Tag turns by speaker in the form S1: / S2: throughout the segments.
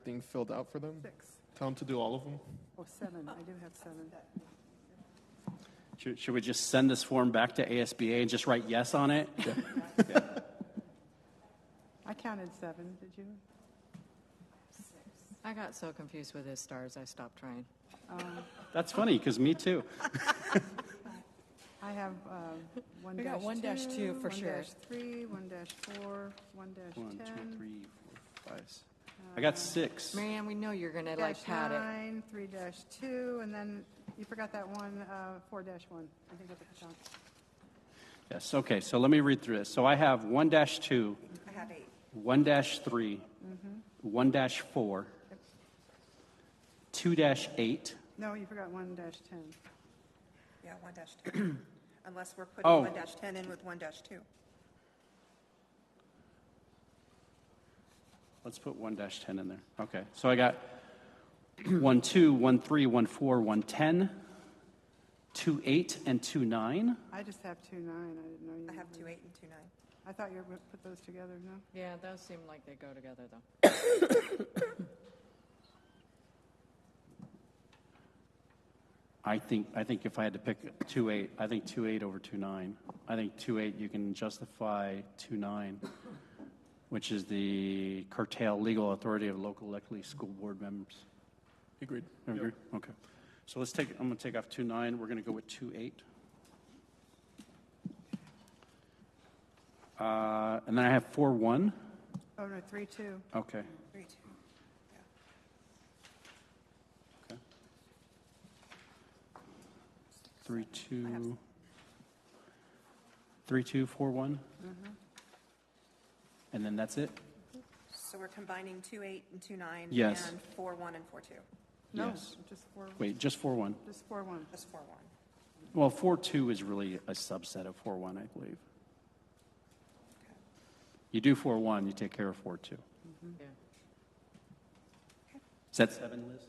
S1: everything filled out for them?
S2: Six,
S1: Tell them to do all of them?
S2: or seven, I do have seven.
S3: Should, should we just send this form back to ASBA and just write yes on it?
S2: I counted seven, did you?
S4: I got so confused with his stars, I stopped trying.
S3: That's funny, because me too.
S2: I have uh, one
S4: We
S2: dash two.
S4: got one dash two for sure.
S2: One dash three, one dash four, one dash ten.
S3: One, two, three, four, five. s- I got six.
S4: Marianne, we know you're gonna like
S2: Dash
S4: pat it.
S2: nine, three dash two, and then you forgot that one, uh, four dash one. I think that's what John.
S3: Yes, okay, so let me read through this. So I have one dash two,
S5: I have eight. Mm-hmm.
S3: one dash three, one dash four, two dash eight.
S2: No, you forgot one dash ten.
S5: Yeah, one dash two. Unless we're
S3: Oh.
S5: putting one dash ten in with one dash two.
S3: Let's put one dash ten in there. Okay, so I got one two, one three, one four, one ten, two eight, and two nine.
S2: I just have two nine, I didn't know you.
S5: I have
S2: had-
S5: two eight and two nine.
S2: I thought you were gonna put those together, no?
S4: Yeah, those seem like they go together though.
S3: I think, I think if I had to pick two eight, I think two eight over two nine. I think two eight, you can justify two nine, which is the curtail legal authority of local elected school board members.
S1: Agreed.
S3: Everyone agree? Okay. So let's take, I'm going to take off two nine, we're going to go with two eight. Uh, and then I have four one,
S2: Oh, no, three two.
S3: okay.
S5: Three, two. Yeah.
S3: Three, two, three, two, four, one?
S5: Mm-hmm.
S3: And then that's it?
S5: So we're combining two eight and two nine?
S3: Yes.
S5: And four one and four two.
S2: No,
S3: Yes.
S2: just four,
S3: Wait, just four, one?
S2: just four one.
S5: Just four one.
S3: Well, four, two is really a subset of four, one, I believe. You do four, one, you take care of four, two.
S4: Yeah.
S3: Is that seven, Liz?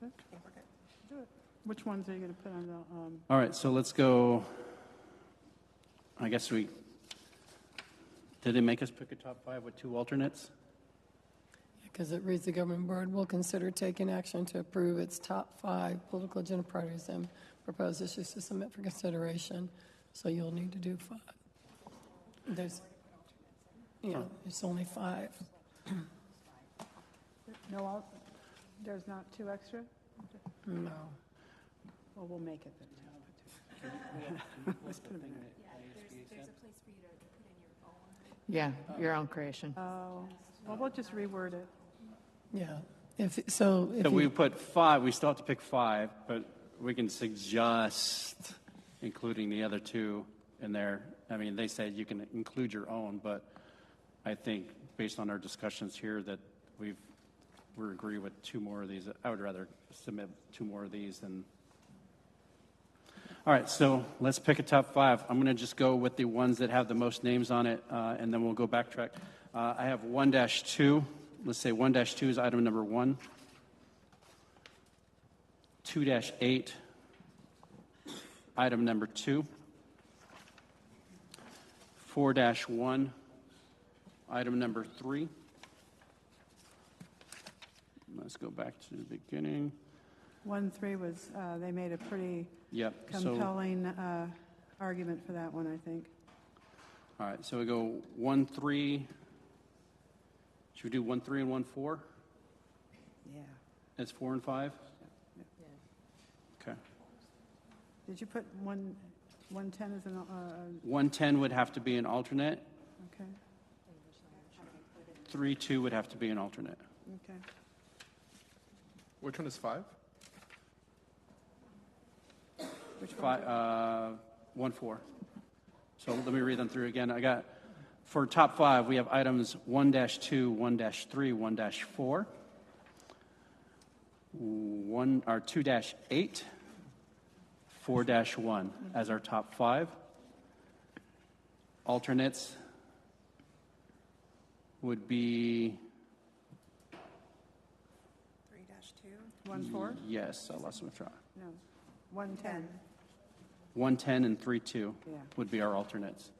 S5: I think we're good.
S2: Which ones are you gonna put on the, um,
S3: All right, so let's go. I guess we, did they make us pick a top five with two alternates?
S6: Because it reads, "The Government Board will consider taking action to approve its top five political agenda priorities and propose issues to submit for consideration." So you'll need to do five. There's, yeah, it's only five.
S2: no, al- there's not two extra?
S6: No.
S2: Well, we'll make it then. I don't know.
S4: Yeah, your own creation.
S2: Oh, well, we'll just reword it.
S6: Yeah. If, so if
S3: So we
S6: you,
S3: put five, we still have to pick five, but we can suggest including the other two in there. I mean, they said you can include your own, but I think based on our discussions here that we've, we agree with two more of these. I would rather submit two more of these than. All right, so let's pick a top five. I'm going to just go with the ones that have the most names on it, uh, and then we'll go backtrack. Uh, I have one dash two. Let's say one dash two is item number one. 2-8, item number 2, 4-1, item number 3. Let's go back to the beginning.
S2: One, three was, uh, they made a pretty
S3: Yep, so, all
S2: compelling uh, argument for that one, I think.
S3: right, so we go 1-3. Should we do 1-3 and 1-4?
S2: Yeah.
S3: That's 4 and 5? Okay.
S2: Did you put one, 110 as an, uh,
S3: 1-10 would have to be an alternate,
S2: okay,
S3: 3-2 would have to be an alternate.
S2: okay.
S1: Which one is five?
S2: Which one?
S3: Fi uh, one, four. So let me read them through again. I got, for top five, we have items one dash two, one dash three, one dash four, one, or two dash eight, four dash one as our top five. Alternates would be,
S5: Three dash two,
S2: One, four?
S3: yes, I lost my track.
S2: No. 110.
S5: ten.
S3: One ten and three two
S2: Yeah.
S3: would be our alternates.